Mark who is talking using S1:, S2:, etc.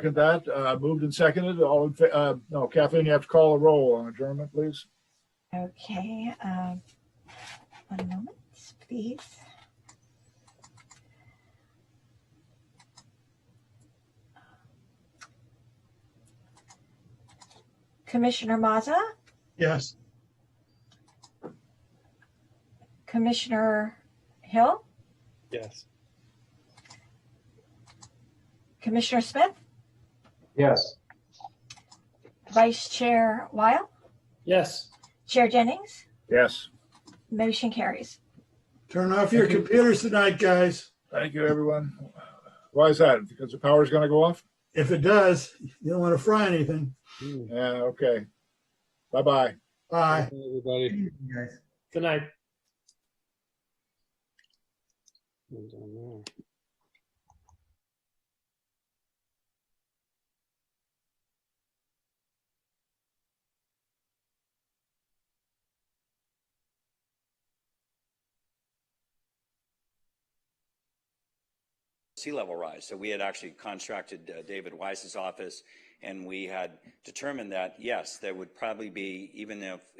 S1: Second that, uh, moved and seconded, all in, fa- uh, no, Kathleen, you have to call a roll on adjournment, please.
S2: Okay, um, one moment, please. Commissioner Mazza,
S3: Yes.
S2: Commissioner Hill,
S3: Yes.
S2: Commissioner Smith,
S3: Yes.
S2: Vice Chair Weil,
S3: Yes.
S2: Chair Jennings,
S1: Yes,
S2: motion carries.
S4: Turn off your computers tonight, guys.
S1: thank you, everyone. Why is that? Because the power's gonna go off?
S4: If it does, you don't want to fry anything.
S1: Yeah, okay. Bye-bye.
S4: Bye.
S5: Everybody.
S6: guys.
S3: Good night.
S5: Hold on there.
S7: sea level rise. So we had actually contracted uh, David Weiss's office, and we had determined that, yes, there would probably be, even if